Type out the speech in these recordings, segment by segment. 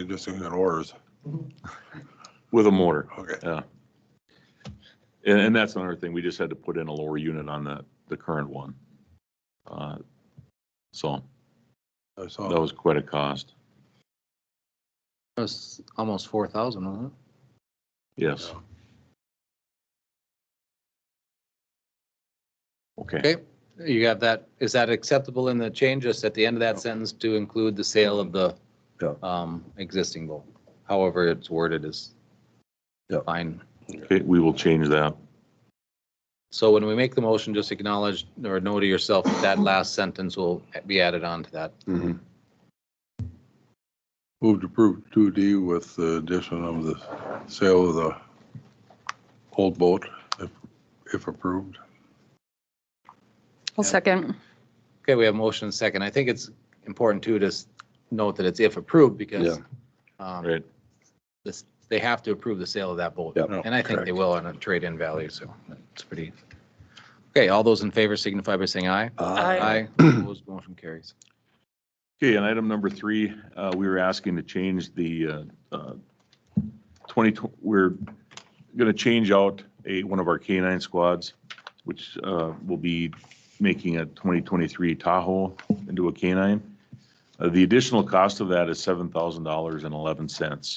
You're just doing an orders. with a mortar. Okay. And, and that's another thing, we just had to put in a lower unit on the, the current one. Uh, So I saw. that was quite a cost, That's almost four thousand, wasn't it? yes. Yeah. Okay, Okay, you have that, is that acceptable in the change, just at the end of that sentence to include the sale of the Yeah. um, existing bowl? However it's worded is Yeah. fine. okay, we will change that. So when we make the motion, just acknowledge or know to yourself that that last sentence will be added on to that. Move to approve two D with the addition of the sale of the old boat, if, if approved. I'll second. Okay, we have motion and second. I think it's important too to s- note that it's if approved because um, Right, this, they have to approve the sale of that boat. Yeah. Oh, And I think they will on a trade-in value, so it's pretty. Okay, all those in favor signify by saying aye. Aye. Opposed, motion carries. okay, and item number three, uh, we were asking to change the, uh, uh, twenty, tw- we're gonna change out a, one of our K nine squads, which, uh, will be making a twenty twenty-three Tahoe into a K nine. Uh, The additional cost of that is seven thousand dollars and eleven cents.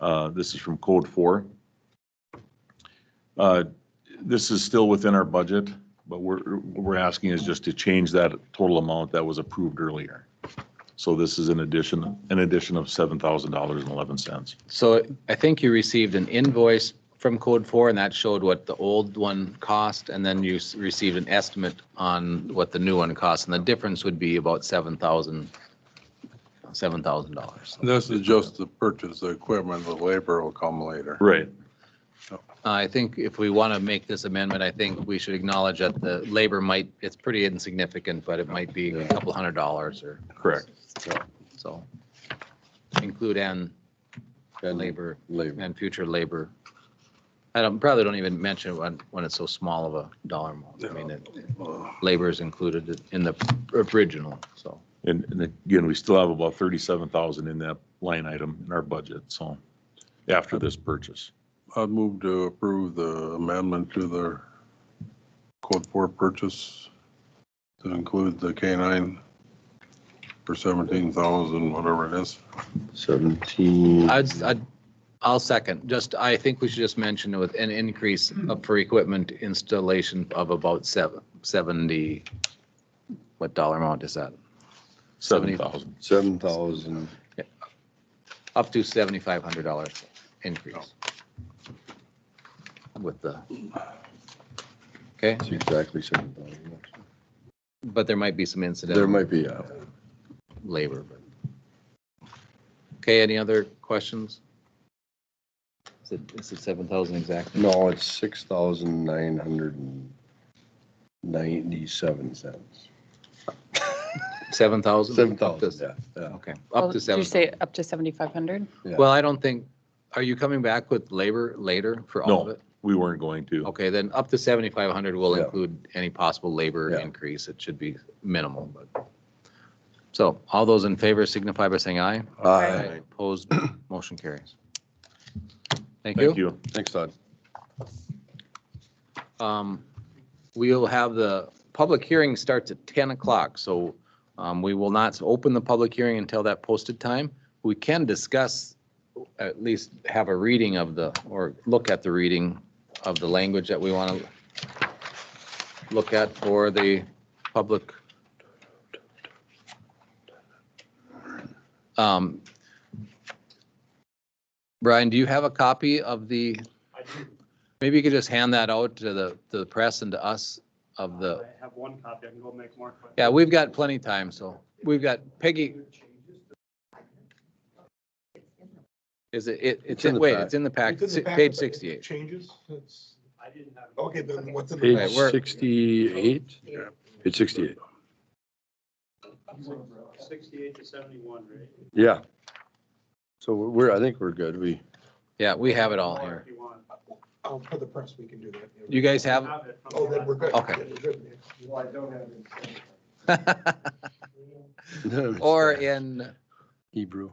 Uh, This is from code four. Uh, This is still within our budget, but we're, what we're asking is just to change that total amount that was approved earlier. So this is an addition, an addition of seven thousand dollars and eleven cents. So I think you received an invoice from Code 4 and that showed what the old one cost and then you s- received an estimate on what the new one costs. And the difference would be about $7,000, $7,000. This is just the purchase, the equipment, the labor will come later. Right. Uh, I think if we want to make this amendment, I think we should acknowledge that the labor might, it's pretty insignificant, but it might be a couple hundred dollars or Correct. so. Include and labor Labor. and future labor. I don't, probably don't even mention it when, when it's so small of a dollar amount. I mean, it- Uh, labor is included in the original, so. And, and again, we still have about thirty-seven thousand in that line item in our budget, so after this purchase. I'd move to approve the amendment to the code four purchase to include the K nine for seventeen thousand, whatever it is. Seventeen. I'd, I'd, I'll second, just, I think we should just mention with an increase up for equipment installation of about seven, seventy, what dollar amount is that? Seven thousand. Seven thousand. Up to seventy-five hundred dollars increase. Oh. With the, okay, It's exactly seven thousand. but there might be some incidental. There might be, uh, labor. but- Okay, any other questions? Is it, is it seven thousand exactly? no, it's six thousand nine hundred and ninety-seven cents. Seven thousand? Seven thousand, yeah, yeah. Okay, Well, up to did seven. you say up to 7,500? yeah. Well, I don't think, are you coming back with labor later for all of No, it? we weren't going to. Okay, then up to seventy-five hundred will Yeah. include any possible labor Yeah. increase. It should be minimal, but. So all those in favor signify by saying aye. Aye. Opposed, motion carries. Thank you. Thank you. Thanks, Todd. Um, We'll have the, public hearing starts at 10 o'clock, so um, we will not open the public hearing until that posted time. We can discuss, at least have a reading of the, or look at the reading of the language that we want to look at for the public. Um, Brian, do you have a copy of the Maybe you could just hand that out to the, to the press and to us of the, I have one copy, I can go make more. quick. yeah, we've got plenty of time, so we've got Peggy. Is it, it, it's, in in the wait, pack. it's in the pack, It's in the packet, page but it sixty-eight. Changes, it's, I didn't have. okay, then what's in Page the? Right, we're- sixty-eight? Yeah. Page sixty-eight. Sixty-eight to seventy-one, right? Yeah. So we're, I think we're good. We, Yeah, we have it all Or here. If you want. Um, for the press, we can do that. You guys I have? it from Oh, then we're good. Okay. Yeah, we're good. Well, I don't have it. Or in Hebrew.